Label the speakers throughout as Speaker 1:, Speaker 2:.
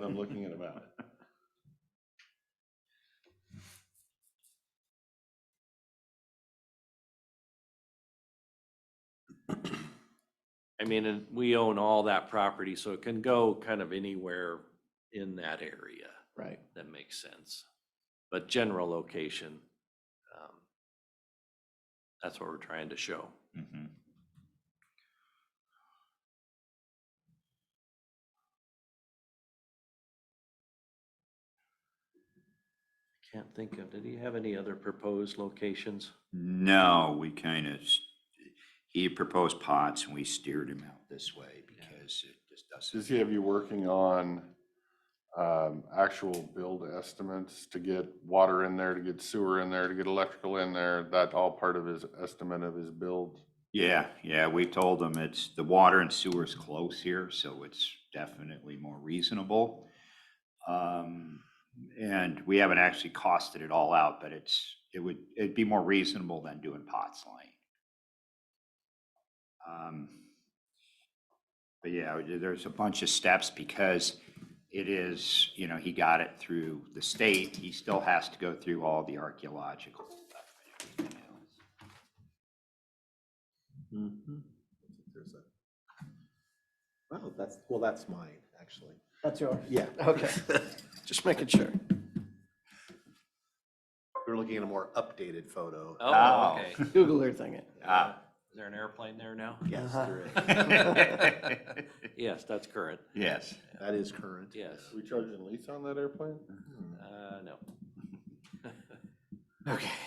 Speaker 1: looking at a map.
Speaker 2: I mean, and we own all that property, so it can go kind of anywhere in that area.
Speaker 3: Right.
Speaker 2: That makes sense. But general location, um, that's what we're trying to show.
Speaker 3: Mhm.
Speaker 2: Can't think of, did he have any other proposed locations?
Speaker 3: No, we kind of, he proposed pots and we steered him out this way because it just
Speaker 1: Does
Speaker 3: doesn't.
Speaker 1: he have you working on um, actual build estimates to get water in there, to get sewer in there, to get electrical in there? That all part of his estimate of his build?
Speaker 3: Yeah, yeah, we told him it's, the water and sewer's close here, so it's definitely more reasonable. Um, And we haven't actually costed it all out, but it's, it would, it'd be more reasonable than doing Potts Lane. Um, But yeah, we- there's a bunch of steps because it is, you know, he got it through the state. He still has to go through all the archaeological stuff and everything else.
Speaker 4: There's a- Oh, that's, well, that's mine, actually.
Speaker 5: That's yours.
Speaker 4: Yeah.
Speaker 5: Okay, just making sure.
Speaker 4: We're looking at a more updated photo.
Speaker 2: Oh, okay.
Speaker 5: Google Earth thing it.
Speaker 3: Ah.
Speaker 2: Is there an airplane there now?
Speaker 4: Yes,
Speaker 5: Uh-huh.
Speaker 4: there is.
Speaker 2: Yes, that's current.
Speaker 3: Yes.
Speaker 4: That is current.
Speaker 2: Yes.
Speaker 1: We charging lease on that airplane?
Speaker 4: Hmm.
Speaker 2: Uh, no.
Speaker 5: Okay.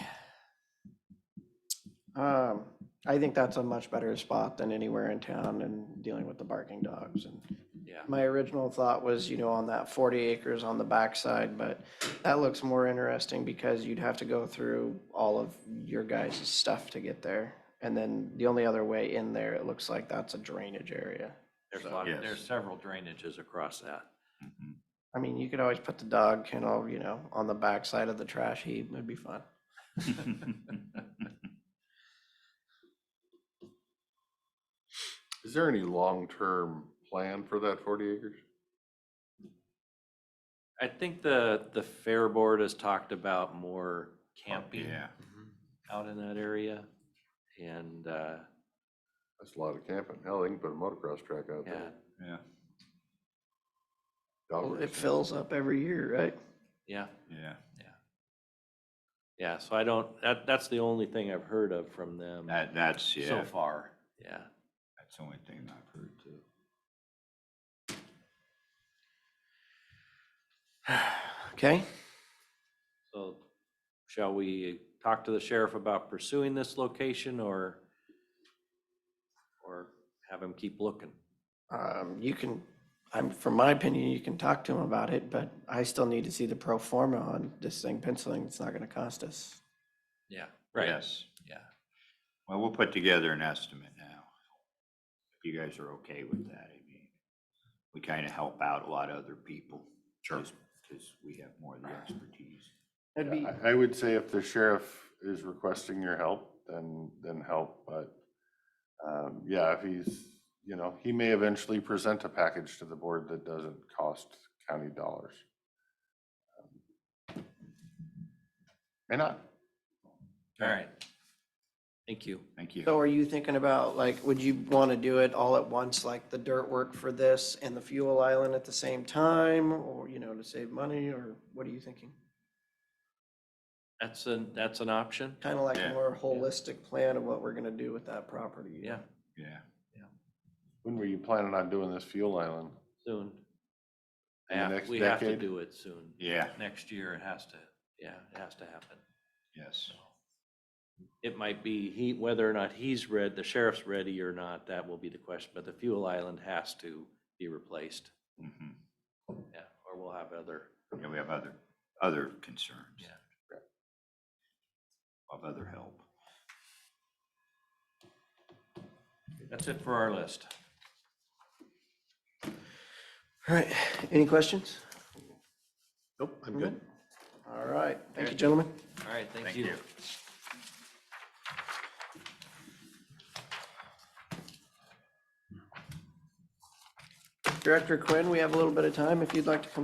Speaker 5: Um, I think that's a much better spot than anywhere in town and dealing with the barking dogs. And
Speaker 2: Yeah.
Speaker 5: my original thought was, you know, on that forty acres on the backside, but that looks more interesting because you'd have to go through all of your guys' stuff to get there. And then the only other way in there, it looks like that's a drainage area.
Speaker 2: There's a lot,
Speaker 3: Yes.
Speaker 2: of there's several drainages across that.
Speaker 3: Mhm.
Speaker 5: I mean, you could always put the dog kennel, you know, on the backside of the trash heap. It'd be fun.
Speaker 3: Mm-hmm.
Speaker 1: Is there any long-term plan for that forty acres?
Speaker 2: I think the, the Fair Board has talked about more camping Mm-hmm.
Speaker 3: Oh, Yeah.
Speaker 2: out in that area. And, uh,
Speaker 1: That's a lot of camping. Hell, they can put a motocross track out
Speaker 2: yeah,
Speaker 1: there.
Speaker 3: Yeah,
Speaker 1: Dog
Speaker 5: Well, It
Speaker 1: racing.
Speaker 5: fills up every year, right?
Speaker 2: yeah,
Speaker 3: yeah.
Speaker 2: yeah. So I don't, that, that's the only thing I've heard of from them
Speaker 3: That, that's, yeah,
Speaker 2: so
Speaker 3: that's
Speaker 2: far. Yeah.
Speaker 3: the only thing I've heard too.
Speaker 5: Okay,
Speaker 2: So shall we talk to the sheriff about pursuing this location or, or have him keep looking?
Speaker 5: um, you can, I'm, from my opinion, you can talk to him about it, but I still need to see the pro forma on this thing penciling. It's not gonna cost us.
Speaker 2: Yeah, right,
Speaker 3: Yes.
Speaker 2: yeah.
Speaker 3: Well, we'll put together an estimate now. If you guys are okay with that, I mean, we kind of help out a lot of other people. Sure. Because we have more of the expertise.
Speaker 5: It'd be,
Speaker 1: I, I would say if the sheriff is requesting your help, then, then help, but, um, yeah, if he's, you know, he may eventually present a package to the board that doesn't cost county dollars. Um, May not.
Speaker 2: All right. Thank you.
Speaker 3: Thank you.
Speaker 5: so are you thinking about, like, would you wanna do it all at once, like the dirt work for this and the fuel island at the same time? Or, you know, to save money, or what are you thinking?
Speaker 2: That's an, that's an option.
Speaker 5: Kinda like a
Speaker 3: Yeah.
Speaker 5: more holistic plan of what we're gonna do with that property.
Speaker 2: Yeah,
Speaker 3: Yeah.
Speaker 1: When were you planning on doing this fuel island?
Speaker 2: soon.
Speaker 1: In the
Speaker 2: Yeah,
Speaker 1: next
Speaker 2: we have to
Speaker 1: decade?
Speaker 2: do it soon.
Speaker 3: Yeah,
Speaker 2: Next year it has to, yeah, it has to happen.
Speaker 3: yes.
Speaker 2: It might be he, whether or not he's read, the sheriff's ready or not, that will be the question, but the fuel island has to be replaced.
Speaker 3: Mhm.
Speaker 2: Yeah, or we'll have other,
Speaker 3: Yeah, we have other, other concerns.
Speaker 2: Yeah.
Speaker 3: Of other help.
Speaker 2: that's it for our list.
Speaker 5: All right, any questions?
Speaker 4: Nope, I'm good.
Speaker 5: All right, thank you, gentlemen.
Speaker 2: All right, thank
Speaker 3: Thank
Speaker 2: you.
Speaker 3: you.
Speaker 5: Director Quinn, we have a little bit of time if you'd like to come